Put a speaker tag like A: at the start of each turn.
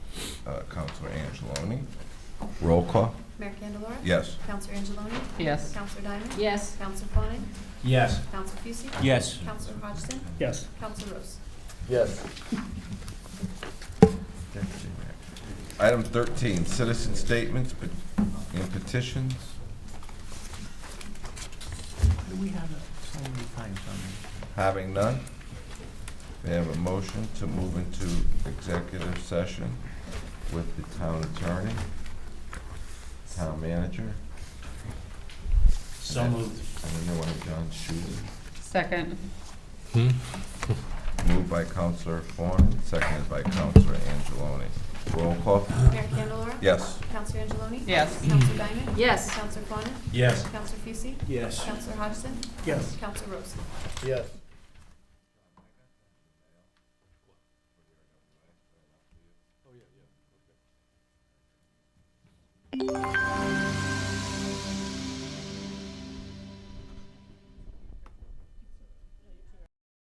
A: uh, Counselor Angeloni. Roll call?
B: Mayor Candelora?
A: Yes.
B: Counselor Angeloni?
C: Yes.
B: Counselor Diamond?
C: Yes.
B: Counselor Fawnin?
D: Yes.
B: Counselor Fucy?
D: Yes.
B: Counselor Hodgson?
D: Yes.
B: Counselor Rose?
E: Yes.
A: Item thirteen, citizen statements pe- and petitions.
E: Do we have so many times on
A: Having none, may I have a motion to move into executive session with the town attorney, town manager,
D: So moved.
A: and the new one, John Schuler.
C: Second.
A: Moved by Counselor Fawn, seconded by Counselor Angeloni. Roll call?
B: Mayor Candelora?
A: Yes.
B: Counselor Angeloni?
C: Yes.
B: Counselor Diamond?
C: Yes.
B: Counselor Fawnin?
D: Yes.
B: Counselor Fucy?
D: Yes.
B: Counselor Hodgson?
D: Yes.
B: Counselor Rose?
E: Yes.